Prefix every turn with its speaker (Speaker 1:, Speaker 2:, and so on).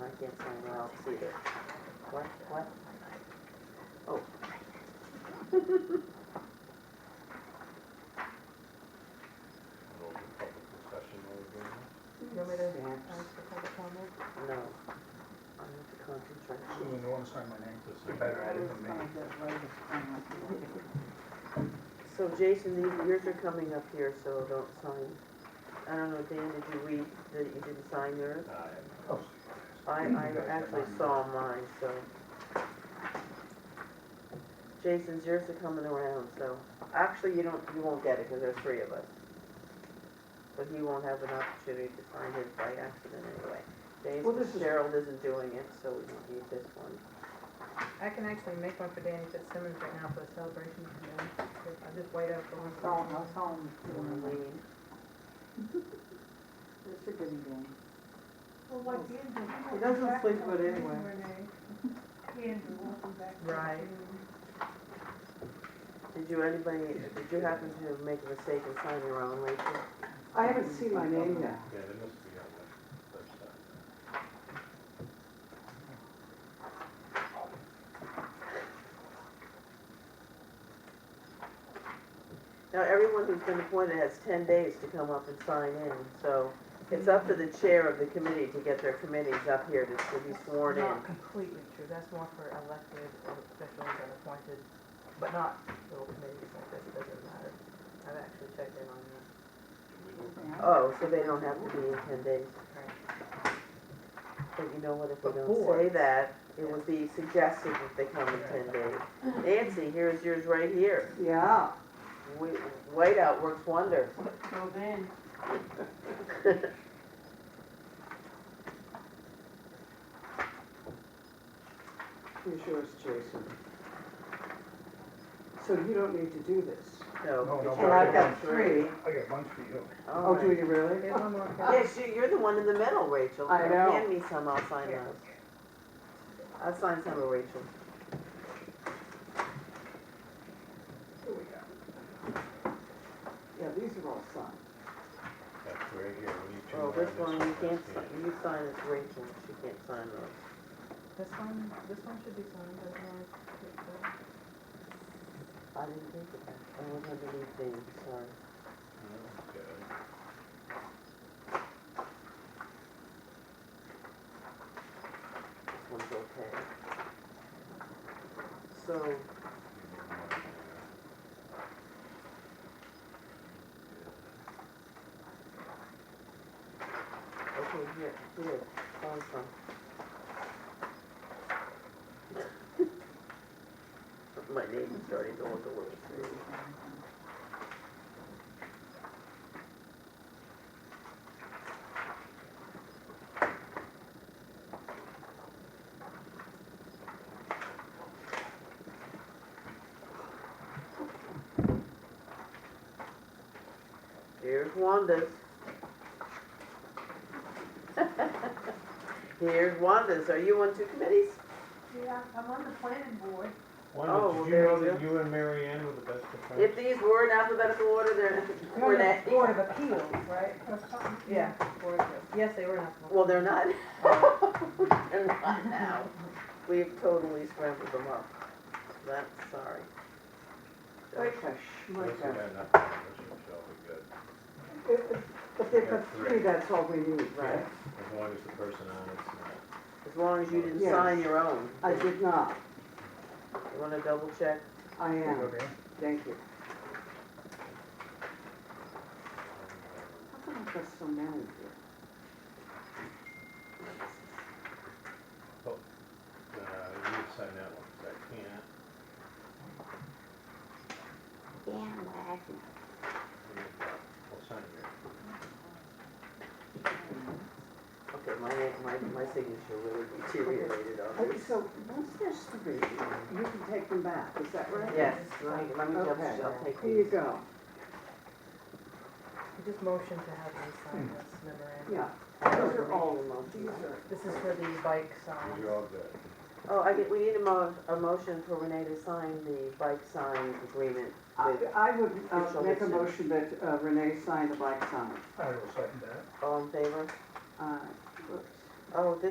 Speaker 1: I can't find where I'll see it. What, what? Oh.
Speaker 2: Open public discussion over there.
Speaker 3: You want me to
Speaker 1: Snaps.
Speaker 3: ask for public comment?
Speaker 1: No. I need to concentrate.
Speaker 4: So when they want to sign my name,
Speaker 2: Just
Speaker 4: they
Speaker 2: like-
Speaker 4: better add it than me.
Speaker 1: So Jason, these, yours are coming up here, so don't sign. I don't know, Dan, did you read that you didn't sign yours?
Speaker 2: I have
Speaker 4: Oh,
Speaker 1: I, I actually saw mine, so. Jason's, yours are coming around, so, actually, you don't, you won't get it, because there's three of us. But he won't have an opportunity to sign his by accident anyway.
Speaker 4: Well, this
Speaker 1: Jason,
Speaker 4: is-
Speaker 1: Gerald isn't doing it, so we don't need this one.
Speaker 3: I can actually make one for Danny Fitzsimmons right now for the celebration. I just wait up for one.
Speaker 5: Home, that's home.
Speaker 4: Mm-hmm.
Speaker 1: Lean.
Speaker 5: It's a goody day.
Speaker 6: Well, what Andrew.
Speaker 5: He doesn't sleep good anyway.
Speaker 6: Andrew won't be back. till
Speaker 3: Right.
Speaker 6: June.
Speaker 1: Did you, anybody, did you happen to make a mistake and sign your own, Rachel?
Speaker 5: I haven't seen my name yet.
Speaker 2: Yeah, there uh, must be on the website.
Speaker 1: Now, everyone who's been appointed has ten days to come up and sign in, so it's up to the chair of the committee to get their committees up here to, to be sworn in.
Speaker 3: Not completely true, that's more for elected officials and appointed, but not little committees like this, it doesn't matter. I've actually checked in on that.
Speaker 1: Oh, so they don't have to be in ten days.
Speaker 3: Right.
Speaker 1: But you know what, if we
Speaker 3: But
Speaker 1: don't say
Speaker 3: boards.
Speaker 1: that, it would be suggested that they come in ten days. Nancy, here's yours right here.
Speaker 5: Yeah.
Speaker 1: Wait- Whiteout works wonders.
Speaker 5: So then. Here's yours, Jason. So you don't need to do this.
Speaker 1: No.
Speaker 4: No, no,
Speaker 1: it's
Speaker 4: but
Speaker 5: And
Speaker 4: I
Speaker 1: yours.
Speaker 5: I've
Speaker 4: got
Speaker 5: got three.
Speaker 4: I got a bunch for you.
Speaker 1: All
Speaker 5: Oh,
Speaker 1: right.
Speaker 5: do you really?
Speaker 3: There's one more. for-
Speaker 1: Yes, you- you're the one in the middle, Rachel.
Speaker 5: I know.
Speaker 1: Hand me some, I'll sign those. I'll sign some of Rachel's.
Speaker 5: Yeah, these are all signed.
Speaker 2: That's right here, we need two.
Speaker 1: Well,
Speaker 2: more
Speaker 1: Oh, this
Speaker 2: on
Speaker 1: one, you can't,
Speaker 2: that's
Speaker 1: si-
Speaker 2: it.
Speaker 1: you sign it, Rachel, she can't sign those.
Speaker 3: This one, this one should be signed, doesn't it?
Speaker 1: I didn't think of that. I don't have anything, sorry.
Speaker 2: Yeah,
Speaker 1: This one's okay. So,
Speaker 2: okay.
Speaker 1: okay, here, here, sign some. My name is starting to look a little strange. Here's Wanda's. Here's Wanda's. Are you on two committees?
Speaker 6: Yeah, I'm on the planning board.
Speaker 1: Oh,
Speaker 2: Wanda,
Speaker 1: well,
Speaker 2: did you
Speaker 1: there
Speaker 2: know
Speaker 1: you
Speaker 2: that you and Mary Ann were the best of friends?
Speaker 1: If these were in alphabetical order, they're, were they?
Speaker 3: Board of Appeals, right?
Speaker 6: or something.
Speaker 3: Yeah, Board of Appeals. Yes, they were not.
Speaker 1: Well, they're not.
Speaker 5: Oh.
Speaker 1: They're not now. We've totally scrambled them up. That's sorry.
Speaker 5: Like a
Speaker 2: This one
Speaker 5: schmuck.
Speaker 2: had nothing on it, so shall be good.
Speaker 5: If they've got three, that's all we need, right?
Speaker 2: As long as the person on it's not.
Speaker 1: As long as you didn't
Speaker 5: Yes.
Speaker 1: sign your own.
Speaker 5: I did not.
Speaker 1: You wanna double check?
Speaker 5: I am.
Speaker 4: Okay.
Speaker 5: Thank you.
Speaker 2: um,
Speaker 5: How come I've got so many here?
Speaker 2: Uh, you need to sign that one, 'cause I can't. Yeah, I'll sign yours.
Speaker 1: Okay, my, my, my signature really deteriorated on
Speaker 5: Okay,
Speaker 1: this.
Speaker 5: so once there's three, you can take them back, is that right?
Speaker 1: Yes, let me, let me double
Speaker 5: Okay.
Speaker 1: check. I'll take
Speaker 5: Here you
Speaker 1: these.
Speaker 5: go.
Speaker 3: Just motion to have them sign this memorandum.
Speaker 5: Yeah, those are all
Speaker 1: These
Speaker 5: these are.
Speaker 3: This is for the bike sign.
Speaker 2: You're all good.
Speaker 1: Oh, I get, we need a mo, a motion for Renee to sign the bike sign agreement
Speaker 5: I,
Speaker 1: with,
Speaker 5: I would uh,
Speaker 1: Official
Speaker 5: make a
Speaker 1: decision.
Speaker 5: motion that uh, Renee sign the bike sign.
Speaker 4: I will second that.
Speaker 1: all in favor?
Speaker 5: Uh, whoops.
Speaker 1: Oh, this